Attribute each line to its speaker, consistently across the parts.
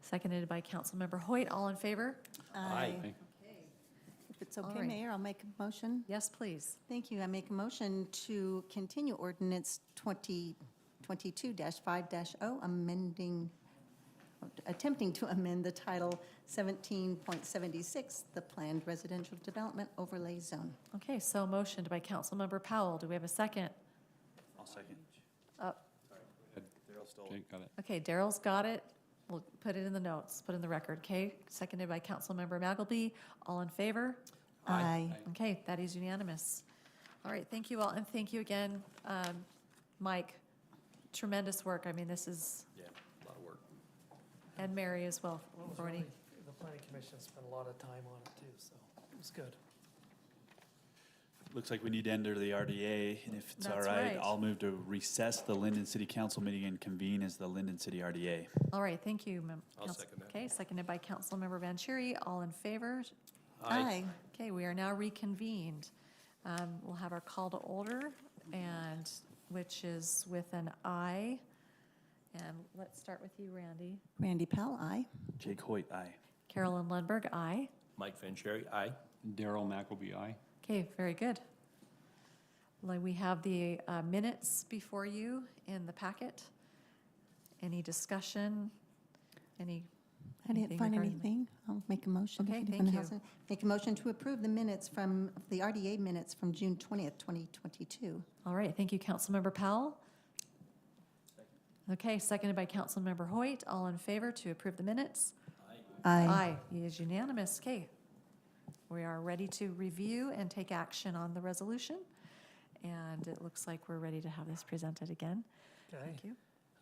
Speaker 1: Seconded by Councilmember Hoyt. All in favor?
Speaker 2: Aye.
Speaker 3: If it's
Speaker 1: All
Speaker 3: okay,
Speaker 1: right.
Speaker 3: Mayor, I'll make a motion.
Speaker 1: Yes, please.
Speaker 3: Thank you. I make a motion to continue ordinance 2022-5-0, oh, amending, attempting to amend the title 17.76, the Planned Residential Development Overlay Zone.
Speaker 1: Okay, so motioned by Councilmember Powell. Do we have a second?
Speaker 2: I'll second.
Speaker 1: Uh,
Speaker 2: Darrell stole
Speaker 4: Okay, got it.
Speaker 1: Okay, Daryl's got it. We'll put it in the notes, put in the record, okay? Seconded by Councilmember Magalby. All in favor?
Speaker 2: Aye.
Speaker 1: Okay, that is unanimous. All right, thank you all, and thank you again, um, Mike. Tremendous work. I mean, this is,
Speaker 2: Yeah, a lot of work.
Speaker 1: and Mary as well,
Speaker 5: Well, it was
Speaker 1: for any-
Speaker 5: really- The planning commission spent a lot of time on it too, so it was good.
Speaker 4: Looks like we need to enter the RDA, and if it's all
Speaker 1: That's
Speaker 4: right,
Speaker 1: right.
Speaker 4: I'll move to recess the Linden City Council meeting and convene as the Linden City RDA.
Speaker 1: All right, thank you. mem-
Speaker 2: I'll
Speaker 1: Council-
Speaker 2: second that.
Speaker 1: Okay, seconded by Councilmember Vanchery. All in favor?
Speaker 3: Aye.
Speaker 1: Okay, we are now reconvened. Um, We'll have our call to order, and, which is with an aye. And let's start with you, Randy.
Speaker 3: Randy Powell, aye.
Speaker 4: Jake Hoyt, aye.
Speaker 1: Carolyn Lundberg, aye.
Speaker 2: Mike Vanchery, aye.
Speaker 6: Daryl McElby, aye.
Speaker 1: Okay, very good. Like, We have the uh, minutes before you in the packet. Any discussion? Any,
Speaker 3: I didn't
Speaker 1: Anything
Speaker 3: find
Speaker 1: regarding the-
Speaker 3: anything. I'll make a motion. if
Speaker 1: Okay,
Speaker 3: anyone
Speaker 1: thank you.
Speaker 3: hasn't. Make a motion to approve the minutes from, the RDA minutes from June 20th, 2022.
Speaker 1: all right, thank you, Councilmember Powell. Okay, seconded by Councilmember Hoyt. All in favor to approve the minutes? Aye, it is unanimous. Okay. We are ready to review and take action on the resolution. And it looks like we're ready to have this presented again.
Speaker 5: Okay.
Speaker 1: Thank you.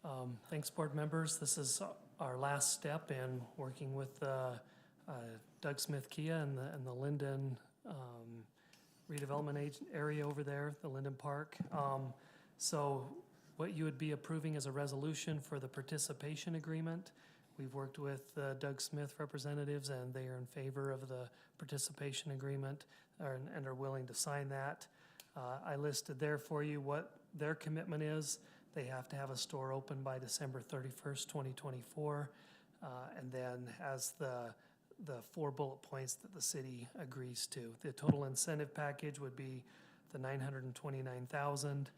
Speaker 5: Um, Thanks, board members. This is our last step in working with uh, uh, Doug Smith Kia and the, and the Linden um, redevelopment ag- area over there, the Linden Park. Um, So what you would be approving is a resolution for the participation agreement. We've worked with uh, Doug Smith representatives, and they are in favor of the participation agreement or- and are willing to sign that. Uh, I listed there for you what their commitment is. They have to have a store open by December thirty-first, twenty twenty-four. Uh, And then as the, the four bullet points that the city agrees to. The total incentive package would be the nine hundred and twenty-nine thousand.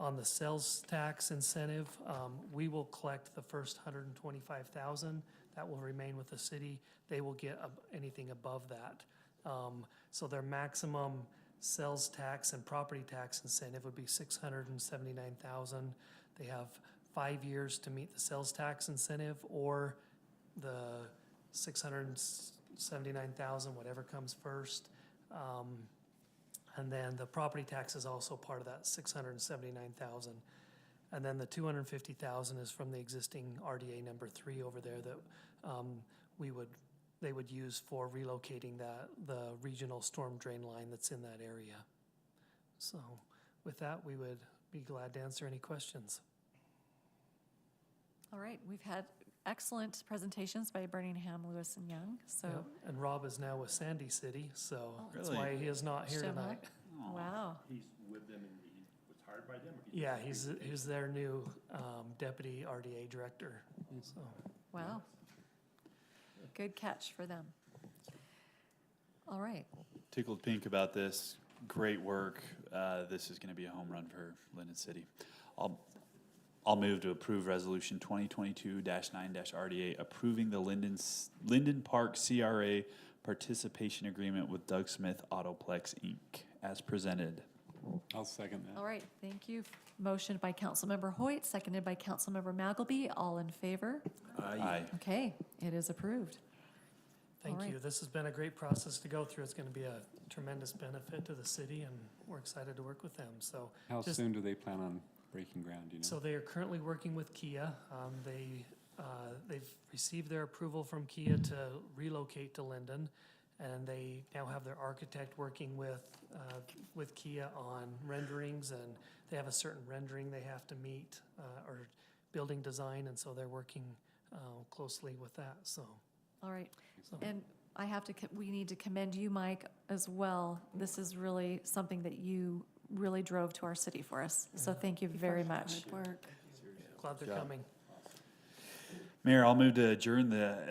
Speaker 5: On the sales tax incentive, um, we will collect the first hundred and twenty-five thousand. That will remain with the city. They will get ab- anything above that. Um, so their maximum sales tax and property tax incentive would be six hundred and seventy-nine thousand. They have five years to meet the sales tax incentive or the six hundred and seventy-nine thousand, whatever comes first. Um, and then the property tax is also part of that six hundred and seventy-nine thousand. And then the two hundred and fifty thousand is from the existing RDA number three over there that um, we would, they would use for relocating that, the regional storm drain line that's in that area. So with that, we would be glad to answer any questions.
Speaker 1: All right, we've had excellent presentations by Birmingham, Lewis and Young, so.
Speaker 5: Yeah, And Rob is now with Sandy City, so that's
Speaker 4: Really?
Speaker 5: why he is not here
Speaker 1: Oh. Still not?
Speaker 5: tonight.
Speaker 1: Wow,
Speaker 7: He's with them and he was hired by them or he?
Speaker 5: Yeah, he's, he's their new um, deputy RDA director, so.
Speaker 1: wow. Good catch for them. All right,
Speaker 4: Tickled pink about this. Great work. Uh, This is going to be a home run for Linden City. I'll, I'll move to approve Resolution 2022-9-RDA, approving the Linden, S- Linden Park CRA participation agreement with Doug Smith Autoplex, Inc., as presented.
Speaker 6: I'll second that.
Speaker 1: all right, thank you. Motion by Councilmember Hoyt, seconded by Councilmember Magalby. All in favor?
Speaker 4: Aye.
Speaker 1: Okay, it is approved.
Speaker 5: Thank
Speaker 1: right.
Speaker 5: you. This has been a great process to go through. It's going to be a tremendous benefit to the city, and we're excited to work with them. So,
Speaker 6: How
Speaker 5: just-
Speaker 6: soon do they plan on breaking ground, do you
Speaker 5: so
Speaker 6: know?
Speaker 5: they are currently working with Kia. Um, They, uh, they've received their approval from Kia to relocate to Linden, and they now have their architect working with, uh, with Kia on renderings, and they have a certain rendering they have to meet, uh, or building design, and so they're working uh, closely with that, so.
Speaker 1: All right,
Speaker 5: so-
Speaker 1: and I have to, co- we need to commend you, Mike, as well. This is really something that you really drove to our city for us, so thank you very much.
Speaker 3: Good work.
Speaker 5: Glad they're
Speaker 4: job.
Speaker 5: coming.
Speaker 4: Mayor, I'll move to adjourn the